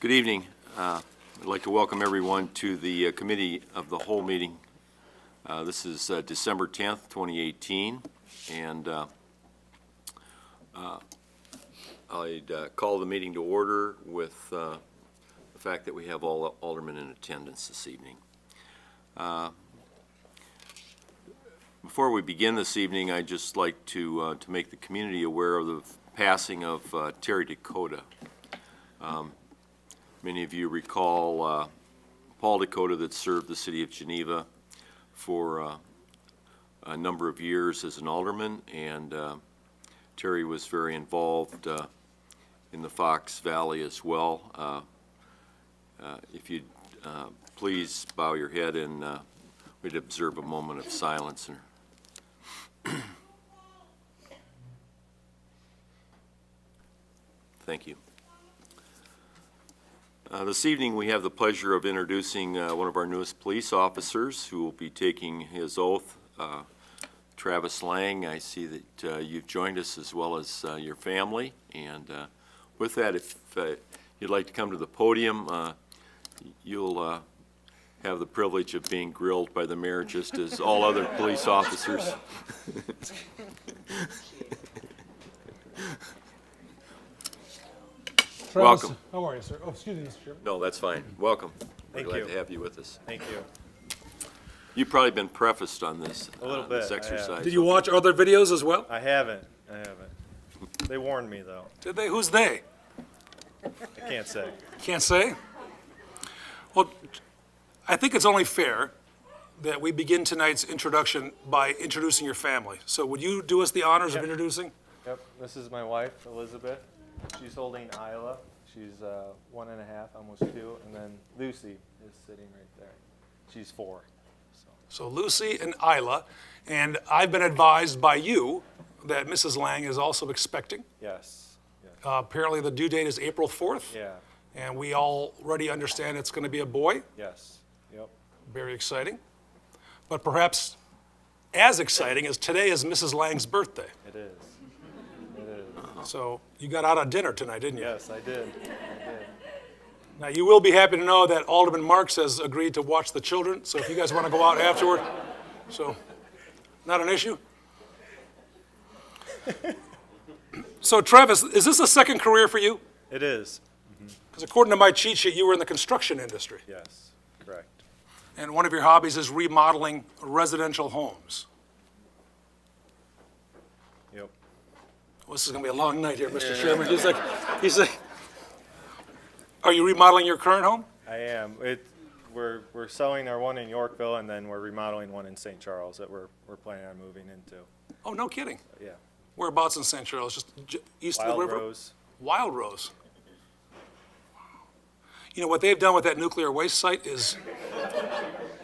Good evening. Uh, I'd like to welcome everyone to the uh, Committee of the Whole meeting. Uh, This is uh, December 10th, 2018, and uh, uh, I'd uh, call the meeting to order with uh, the fact that we have all aldermen in attendance this evening. Uh, Before we begin this evening, I'd just like to, uh, to make the community aware of the passing of uh, Terry Dakota. Many of you recall uh, Paul Dakota that served the city of Geneva for uh, a number of years as an alderman, and uh, Terry was very involved uh, in the Fox Valley as well. Uh, uh, If you'd uh, please bow your head and uh, we'd observe a moment of silence and Thank you. Uh, This evening, we have the pleasure of introducing uh, one of our newest police officers who will be taking his oath, uh, Travis Lang. I see that uh, you've joined us as well as uh, your family. And uh, with that, if uh, you'd like to come to the podium, uh, you'll uh, have the privilege of being grilled by the mayor just as all other police officers. Travis, Welcome. How are you, sir? Oh, excuse me, Mr. Chairman. No, that's fine. Welcome. Thank We're you. glad to have you with us. Thank you. You've probably been prefaced on this, A little on this bit, I have. exercise. Did you watch other videos as well? I haven't. I haven't. They warned me though. Did they? Who's they? I can't say. Can't say? Well, I think it's only fair that we begin tonight's introduction by introducing your family. So would you do us the honors of introducing? Yep. This is my wife, Elizabeth. She's holding Isla. She's uh, one and a half, almost two, and then Lucy is sitting right there. She's four. So Lucy and Isla, and I've been advised by you that Mrs. Lang is also expecting. Yes. yes. Uh, Apparently, the due date is April 4th. Yeah. And we already understand it's going to be a boy. Yes. Yep. Very exciting. But perhaps as exciting as today is Mrs. Lang's birthday. It is. It is. So you got out on dinner tonight, didn't you? Yes, I did. Now, you will be happy to know that Alderman Marks has agreed to watch the children, so if you guys want to go out afterward, so, not an issue. So Travis, is this a second career for you? It is. Because according to my cheat sheet, you were in the construction industry, Yes. Correct. and one of your hobbies is remodeling residential homes. Yep. Well, this is going to be a long night here, Mr. Chairman. He's like, he's like, are you remodeling your current home? I am. It. We're we're selling our one in Yorkville, and then we're remodeling one in St. Charles that we're we're planning on moving into. Oh, no kidding. Yeah. Whereabouts in St. Charles? Just j- east of Wild the river? Rose. Wild Rose. You know, what they've done with that nuclear waste site is,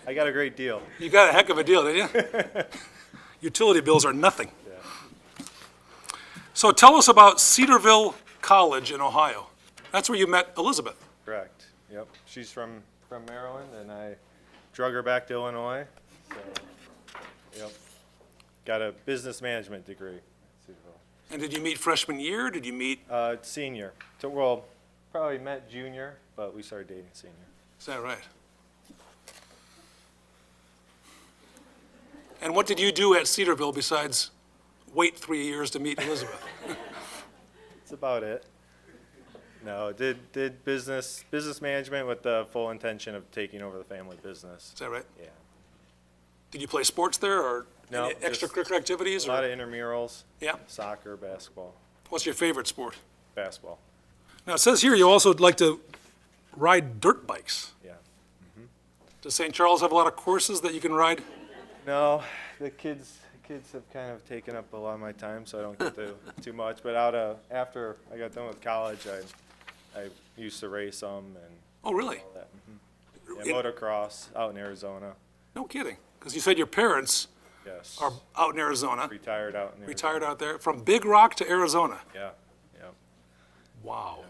I got a great deal. you got a heck of a deal, didn't you? Utility bills are nothing. So tell us about Cedarville College in Ohio. That's where you met Elizabeth. Correct. Yep. She's from, from Maryland and I drug her back to Illinois. So, yep. Got a business management degree. And did you meet freshman year? Did you meet, Uh, senior. So, well, probably met junior, but we started dating senior. is that right? And what did you do at Cedarville besides wait three years to meet Elizabeth? That's about it. No, did, did business, business management with the full intention of taking over the family business. Is that right? Yeah. Did you play sports there or No, any just extracurricular activities? A lot Or of intramurals. Yeah. Soccer, basketball, what's your favorite sport? basketball. Now, it says here you also would like to ride dirt bikes. Yeah. Does St. Charles have a lot of courses that you can ride? No, the kids kids have kind of taken up a lot of my time, so I don't get to too much. But out of after I got done with college, I I used to race them and Oh, really? that. mhm. It- Yeah, motocross out in Arizona. No kidding. Because you said your parents Yes. are out in Arizona, retired out in Arizona. retired out there, from Big Rock to Arizona. Yeah. Yeah. Wow.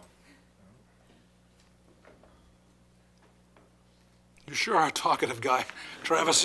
You sure are a talkative guy, Travis.